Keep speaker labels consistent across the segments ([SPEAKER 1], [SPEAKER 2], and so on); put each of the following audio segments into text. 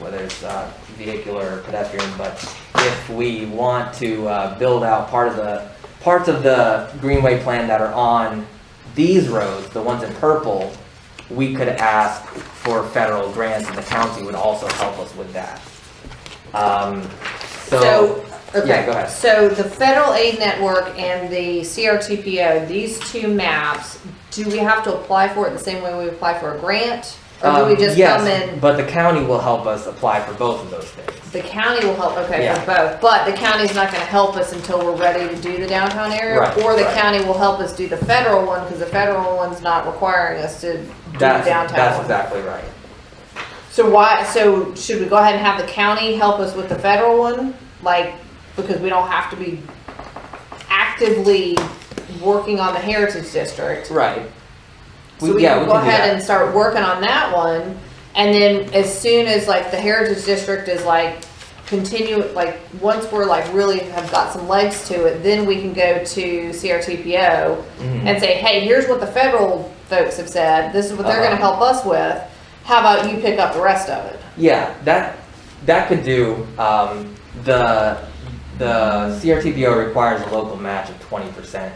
[SPEAKER 1] whether it's uh, vehicular or pedestrian, but if we want to uh, build out part of the, parts of the greenway plan that are on these roads, the ones in purple, we could ask for federal grants and the county would also help us with that. Um,
[SPEAKER 2] So,
[SPEAKER 1] So, yeah, go
[SPEAKER 2] okay,
[SPEAKER 1] ahead.
[SPEAKER 2] so the federal aid network and the CRTPO, these two maps, do we have to apply for it the same way we apply for a grant? Or do we
[SPEAKER 1] um,
[SPEAKER 2] just
[SPEAKER 1] yes,
[SPEAKER 2] come in,
[SPEAKER 1] but the county will help us apply for both of those things.
[SPEAKER 2] the county will help, okay,
[SPEAKER 1] Yeah.
[SPEAKER 2] for both, but the county's not gonna help us until we're ready to do the downtown area?
[SPEAKER 1] Right,
[SPEAKER 2] Or the
[SPEAKER 1] right.
[SPEAKER 2] county will help us do the federal one, cause the federal one's not requiring us to do the
[SPEAKER 1] That's, that's
[SPEAKER 2] downtown one?
[SPEAKER 1] exactly right.
[SPEAKER 2] So why, so should we go ahead and have the county help us with the federal one? Like, because we don't have to be actively working on the heritage district.
[SPEAKER 1] Right.
[SPEAKER 2] So we
[SPEAKER 1] yeah,
[SPEAKER 2] can
[SPEAKER 1] we
[SPEAKER 2] go
[SPEAKER 1] can do that.
[SPEAKER 2] ahead and start working on that one. And then as soon as like the heritage district is like continue, like, once we're like really have got some legs to it, then we can go to CRTPO
[SPEAKER 1] Mhm.
[SPEAKER 2] and say, hey, here's what the federal folks have said. This is what they're
[SPEAKER 1] Uh-huh.
[SPEAKER 2] gonna help us with. How about you pick up the rest of it?
[SPEAKER 1] Yeah, that that could do. Um, the the CRTPO requires a local match of twenty percent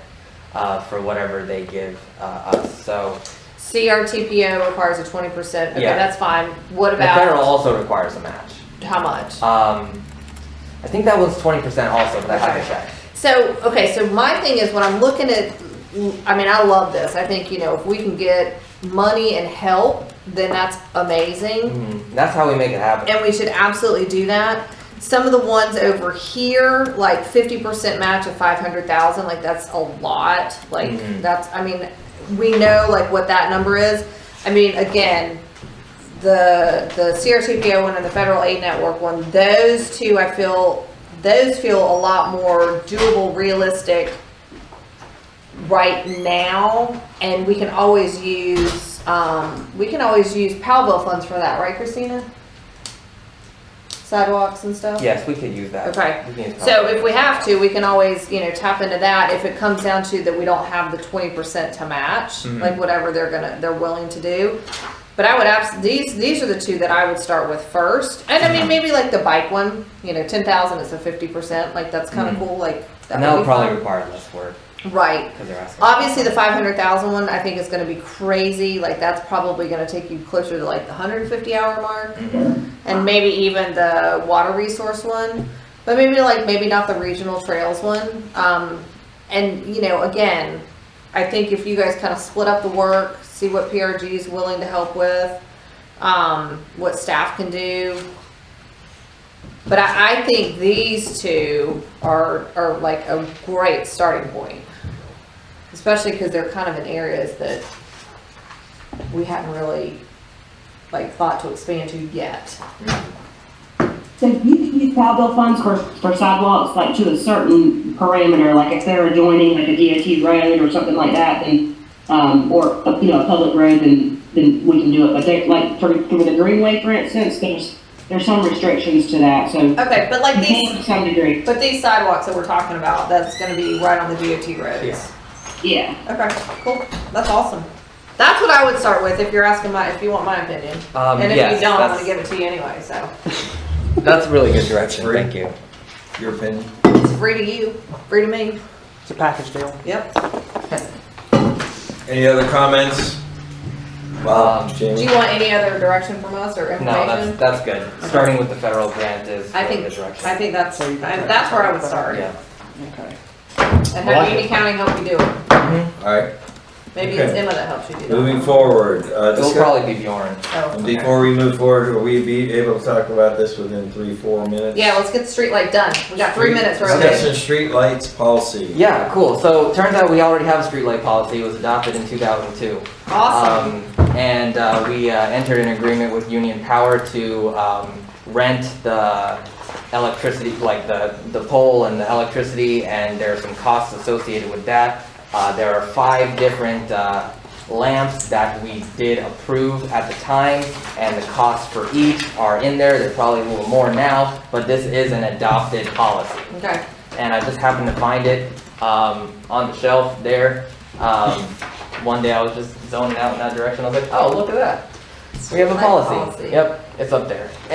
[SPEAKER 1] uh, for whatever they give uh, us. So
[SPEAKER 2] CRTPO requires a twenty percent, okay,
[SPEAKER 1] Yeah.
[SPEAKER 2] that's fine, what
[SPEAKER 1] the federal
[SPEAKER 2] about,
[SPEAKER 1] also requires a match.
[SPEAKER 2] how much?
[SPEAKER 1] Um, I think that one's twenty percent also, but I have to check.
[SPEAKER 2] So, okay, so my thing is when I'm looking at, I mean, I love this, I think, you know, if we can get money and help, then that's amazing,
[SPEAKER 1] Mhm. That's how we make it happen.
[SPEAKER 2] and we should absolutely do that. Some of the ones over here, like fifty percent match of five hundred thousand, like that's a lot, like,
[SPEAKER 1] Mhm.
[SPEAKER 2] that's, I mean, we know like what that number is. I mean, again, the the CRTPO one and the federal aid network one, those two I feel those feel a lot more doable, realistic right now, and we can always use um, we can always use Powell bill funds for that, right, Christina? Sidewalks and stuff.
[SPEAKER 1] Yes, we could use that.
[SPEAKER 2] Okay.
[SPEAKER 1] We can use
[SPEAKER 2] So if we have to, we can always, you know, tap into that if it comes down to that we don't have the twenty percent to match,
[SPEAKER 1] Mhm.
[SPEAKER 2] like whatever they're gonna, they're willing to do. But I would abs, these, these are the two that I would start with first, and I mean,
[SPEAKER 1] Mhm.
[SPEAKER 2] maybe like the bike one, you know, ten thousand is a fifty percent, like that's kinda
[SPEAKER 1] Mhm.
[SPEAKER 2] cool, like. that
[SPEAKER 1] and that
[SPEAKER 2] would
[SPEAKER 1] would
[SPEAKER 2] be
[SPEAKER 1] probably
[SPEAKER 2] fun.
[SPEAKER 1] require less work
[SPEAKER 2] Right,
[SPEAKER 1] because they're asking.
[SPEAKER 2] Obviously, the five hundred thousand one, I think is gonna be crazy, like, that's probably gonna take you closer to like the hundred and fifty hour mark. And maybe even the water resource one, but maybe like, maybe not the regional trails one, um, and, you know, again, I think if you guys kinda split up the work, see what PRG is willing to help with, um, what staff can do. But I, I think these two are, are like a great starting point especially because they're kind of in areas that we haven't really like thought to expand to yet.
[SPEAKER 3] So you can use cowbell funds for, for sidewalks, like to a certain parameter, like if they're adjoining like a DOT road or something like that, then, um, or, you know, a public road, then, then we can do it, but they, like, for, for the greenway, for instance, there's, there's some restrictions to that, so. you
[SPEAKER 2] Okay, but like
[SPEAKER 3] can
[SPEAKER 2] these,
[SPEAKER 3] To some degree,
[SPEAKER 2] but these sidewalks that we're talking about, that's gonna be right on the DOT
[SPEAKER 1] Yeah.
[SPEAKER 2] roads.
[SPEAKER 3] yeah,
[SPEAKER 2] Okay, cool, that's awesome. That's what I would start with if you're asking my, if you want my opinion.
[SPEAKER 1] Um,
[SPEAKER 2] And if
[SPEAKER 1] yes,
[SPEAKER 2] you don't, I'm
[SPEAKER 1] that's,
[SPEAKER 2] gonna give it to you anyway, so.
[SPEAKER 1] that's really good direction.
[SPEAKER 4] Free.
[SPEAKER 1] Thank you.
[SPEAKER 4] Your opinion?
[SPEAKER 2] It's free to you, free to me.
[SPEAKER 1] It's a package deal.
[SPEAKER 2] Yep.
[SPEAKER 4] Any other comments?
[SPEAKER 1] Um,
[SPEAKER 4] Bob,
[SPEAKER 2] Do
[SPEAKER 4] Jamie?
[SPEAKER 2] you want any other direction from us or
[SPEAKER 1] No, that's
[SPEAKER 2] information?
[SPEAKER 1] that's good. Starting with the federal grant is
[SPEAKER 2] I
[SPEAKER 1] really
[SPEAKER 2] think-
[SPEAKER 1] the direction.
[SPEAKER 2] I think that's,
[SPEAKER 5] So you can
[SPEAKER 2] I-
[SPEAKER 5] direct
[SPEAKER 2] that's where I
[SPEAKER 5] them.
[SPEAKER 2] would start.
[SPEAKER 1] Yeah.
[SPEAKER 5] Okay.
[SPEAKER 2] And have Union County help you do it.
[SPEAKER 4] All right,
[SPEAKER 2] Maybe it's
[SPEAKER 4] Okay.
[SPEAKER 2] Emma that helps you do Oh. that.
[SPEAKER 4] moving forward. uh,
[SPEAKER 1] It'll
[SPEAKER 4] discuss-
[SPEAKER 1] probably be Bjorn.
[SPEAKER 2] Oh,
[SPEAKER 4] And
[SPEAKER 2] okay.
[SPEAKER 4] Before we move forward, will we be able to talk about this within three, four minutes?
[SPEAKER 2] Yeah, let's get the street light done. We got three minutes, we're okay.
[SPEAKER 4] Discussion streetlights policy.
[SPEAKER 1] Yeah, cool. So turns out we already have a streetlight policy. It was adopted in 2002.
[SPEAKER 2] Awesome.
[SPEAKER 1] Um, and uh, we uh, entered an agreement with Union Power to um, rent the electricity, like the, the pole and the electricity, and there are some costs associated with that. Uh, there are five different uh, lamps that we did approve at the time, and the costs for each are in there. They're probably a little more now, but this is an adopted policy
[SPEAKER 2] Okay,
[SPEAKER 1] and I just happened to find it um, on the shelf there. Um, one day I was just zoning out in that direction. I was like, oh, look at that. We have a
[SPEAKER 2] Streetlight
[SPEAKER 1] policy.
[SPEAKER 2] policy.
[SPEAKER 1] Yep, it's up there.